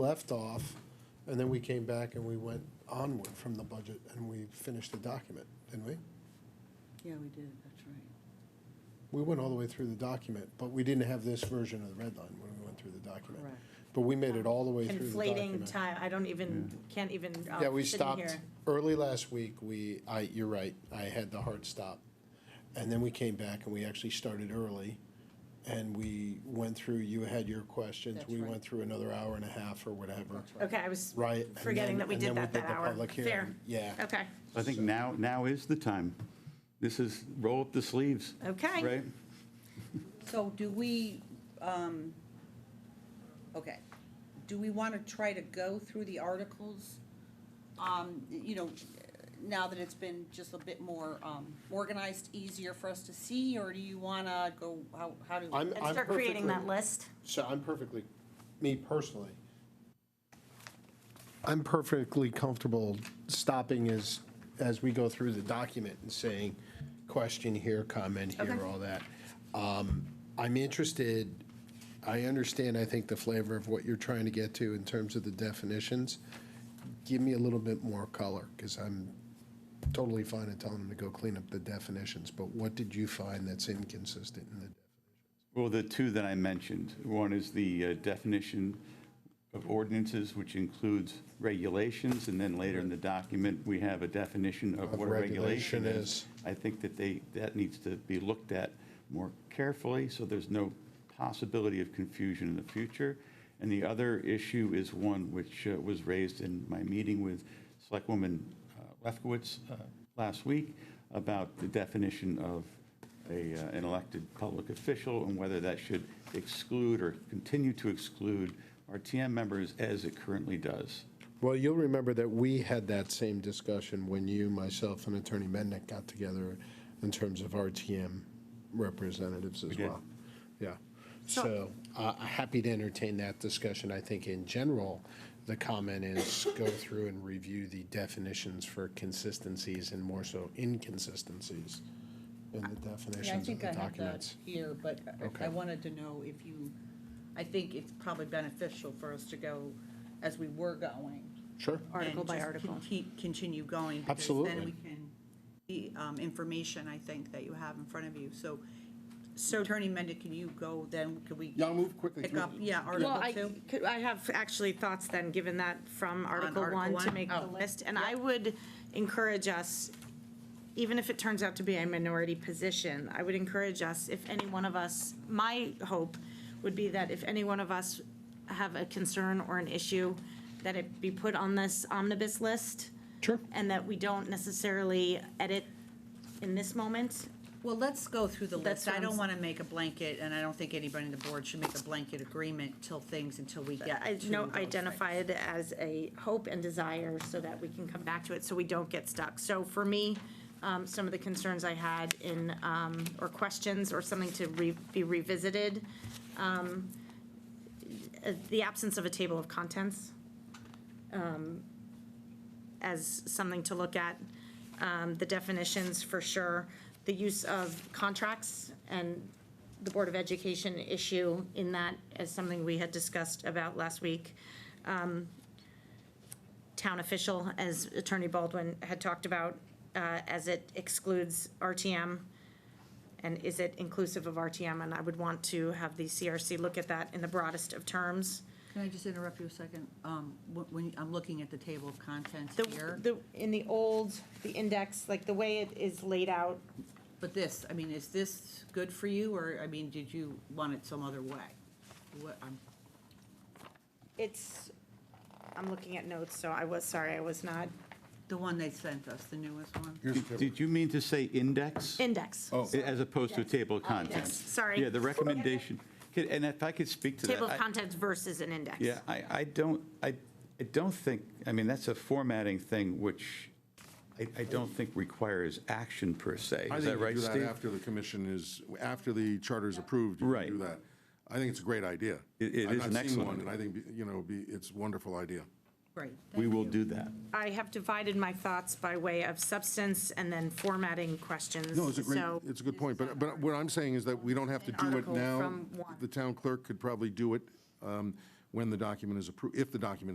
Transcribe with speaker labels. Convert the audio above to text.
Speaker 1: left off, and then we came back and we went onward from the budget and we finished the document, didn't we?
Speaker 2: Yeah, we did, that's right.
Speaker 1: We went all the way through the document, but we didn't have this version of the red line when we went through the document.
Speaker 2: Correct.
Speaker 1: But we made it all the way through the
Speaker 3: conflating
Speaker 1: document.
Speaker 3: time, I don't even, can't even, uh,
Speaker 1: Yeah, we
Speaker 3: sit in
Speaker 1: stopped
Speaker 3: here.
Speaker 1: early last week. We, I, you're right, I had the hard stop. And then we came back and we actually started early. And we went through, you had your questions.
Speaker 2: That's
Speaker 1: We
Speaker 2: right.
Speaker 1: went through another hour and a half or whatever.
Speaker 3: Okay, I was
Speaker 1: Right. and
Speaker 3: forgetting
Speaker 1: then-
Speaker 3: that we
Speaker 1: and
Speaker 3: did
Speaker 1: then
Speaker 3: that that
Speaker 1: the
Speaker 3: hour.
Speaker 1: public hearing.
Speaker 3: Fair.
Speaker 1: Yeah.
Speaker 3: Okay,
Speaker 4: I think now, now is the time. This is, roll up the sleeves,
Speaker 3: okay.
Speaker 4: right?
Speaker 2: So do we, um, okay, do we want to try to go through the articles? Um, you know, now that it's been just a bit more, um, organized, easier for us to see, or do you want to go, how, how do?
Speaker 1: I'm,
Speaker 3: And
Speaker 1: I'm
Speaker 3: start creating that
Speaker 1: perfectly-
Speaker 3: list.
Speaker 1: So I'm perfectly, me personally, I'm perfectly comfortable stopping as, as we go through the document and saying, question here, comment here,
Speaker 3: Okay.
Speaker 1: all that. Um, I'm interested, I understand, I think, the flavor of what you're trying to get to in terms of the definitions. Give me a little bit more color, because I'm totally fine in telling them to go clean up the definitions, but what did you find that's inconsistent in the?
Speaker 4: Well, the two that I mentioned, one is the uh, definition of ordinances, which includes regulations, and then later in the document, we have a definition of
Speaker 1: Of
Speaker 4: what a
Speaker 1: regulation
Speaker 4: regulation
Speaker 1: is.
Speaker 4: is. I think that they, that needs to be looked at more carefully, so there's no possibility of confusion in the future. And the other issue is one which uh, was raised in my meeting with Selectwoman uh, Lefkowitz uh, last week about the definition of a, uh, an elected public official and whether that should exclude or continue to exclude RTM members as it currently does.
Speaker 1: Well, you'll remember that we had that same discussion when you, myself, and Attorney Mendick got together in terms of RTM representatives as
Speaker 4: did.
Speaker 1: well. Yeah.
Speaker 3: So-
Speaker 1: So, uh, happy to entertain that discussion. I think in general, the comment is go through and review the definitions for consistencies and more so inconsistencies in the
Speaker 2: Yeah, I
Speaker 1: definitions of
Speaker 2: think
Speaker 1: the
Speaker 2: I have that
Speaker 1: documents.
Speaker 2: here, but I-
Speaker 1: Okay.
Speaker 2: I wanted to know if you, I think it's probably beneficial for us to go as we were going.
Speaker 1: Sure.
Speaker 3: Article
Speaker 2: and
Speaker 3: by
Speaker 2: just
Speaker 3: article.
Speaker 2: conti- Continue going. because
Speaker 1: Absolutely.
Speaker 2: Then we can, the um, information, I think, that you have in front of you. So, so Attorney Mendon, can you go then? Could we
Speaker 1: Yeah, I'll move quickly
Speaker 2: pick
Speaker 1: through
Speaker 2: up, yeah,
Speaker 3: Well,
Speaker 2: Article
Speaker 3: I,
Speaker 2: Two?
Speaker 3: could- I have actually thoughts then, given that from Article
Speaker 2: Article
Speaker 3: One to
Speaker 2: One?
Speaker 3: make the
Speaker 2: Oh.
Speaker 3: list. And I would encourage us, even if it turns out to be a minority position, I would encourage us, if any one of us, my hope would be that if any one of us have a concern or an issue, that it be put on this omnibus list.
Speaker 1: Sure.
Speaker 3: And that we don't necessarily edit in this moment.
Speaker 2: Well, let's go through the
Speaker 3: That's
Speaker 2: list. I
Speaker 3: what
Speaker 2: don't
Speaker 3: I'm-
Speaker 2: want to make a blanket, and I don't think anybody on the board should make a blanket agreement till things, until we get
Speaker 3: I
Speaker 2: to
Speaker 3: know,
Speaker 2: those
Speaker 3: identify
Speaker 2: things.
Speaker 3: it as a hope and desire so that we can come back to it, so we don't get stuck. So for me, um, some of the concerns I had in, um, or questions or something to re, be revisited, um, uh, the absence of a table of contents, um, as something to look at, um, the definitions for sure, the use of contracts and the Board of Education issue in that as something we had discussed about last week. Um, Town official, as Attorney Baldwin had talked about, uh, as it excludes RTM. And is it inclusive of RTM? And I would want to have the CRC look at that in the broadest of terms.
Speaker 2: Can I just interrupt you a second? Um, wh- When, I'm looking at the table of contents
Speaker 3: The,
Speaker 2: here,
Speaker 3: the, in the old, the index, like the way it is laid out,
Speaker 2: but this, I mean, is this good for you, or, I mean, did you want it some other way? What, um, I'm
Speaker 3: it's, I'm looking at notes, so I was, sorry, I was not.
Speaker 2: The one they sent us, the newest one?
Speaker 4: Did- Did you mean to say index?
Speaker 3: Index.
Speaker 4: Oh. As opposed to a table of contents?
Speaker 3: Oh, Yes, sorry.
Speaker 4: Yeah, the recommendation, Could- and if I could speak to that.
Speaker 3: Table of
Speaker 4: I-
Speaker 3: contents versus an index.
Speaker 4: Yeah, I, I don't, I, I don't think, I mean, that's a formatting thing which I, I don't think requires action per se.
Speaker 5: I
Speaker 4: Is
Speaker 5: think
Speaker 4: that
Speaker 5: you
Speaker 4: right,
Speaker 5: do that
Speaker 4: Steve?
Speaker 5: after the commission is, after the charter is approved, you
Speaker 4: Right.
Speaker 5: can do that. I think it's a great idea.
Speaker 4: It- it
Speaker 5: I've
Speaker 4: is
Speaker 5: not
Speaker 4: an
Speaker 5: seen
Speaker 4: excellent
Speaker 5: one,
Speaker 4: idea.
Speaker 5: And I think, you know, be- it's a wonderful idea.
Speaker 2: Right.
Speaker 4: We will do that.
Speaker 3: I have divided my thoughts by way of substance and then formatting questions.
Speaker 5: No, it's a great,
Speaker 3: So,
Speaker 5: it's a good point, but, but what I'm saying is that we don't have to
Speaker 3: An
Speaker 5: do it
Speaker 3: article
Speaker 5: now.
Speaker 3: from one.
Speaker 5: The town clerk could probably do it. Um, when the document is approved, if the document